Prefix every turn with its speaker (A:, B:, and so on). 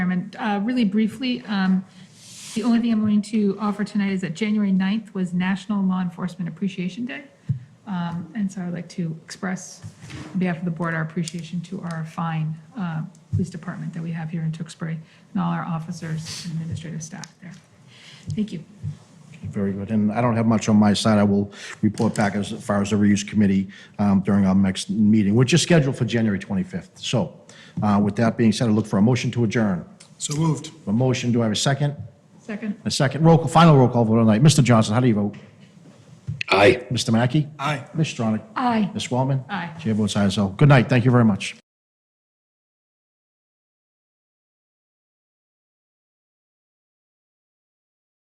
A: Chairman. Uh, Really briefly, um, the only thing I'm going to offer tonight is that January 9th was National Law Enforcement Appreciation Day. Um, And so I'd like to express, on behalf of the board, our appreciation to our fine uh, police department that we have here in Tewksbury and all our officers and administrative staff there. Thank you.
B: Very good. And I don't have much on my side. I will report back as far as the reuse committee um, during our next meeting, which is scheduled for January 25th. So uh, with that being said, I look for a motion to adjourn.
C: So moved.
B: A motion, do I have a second?
A: Second?
B: A second, roll, call- final roll call vote on night. Mr. Johnson, how do you vote?
D: Aye.
B: Mr. Mackey?
C: Aye.
B: Ms. Stronach?
A: Aye.
B: Ms. Wellman?
A: Aye.
B: Chair votes aye as well. Good night. Thank you very much.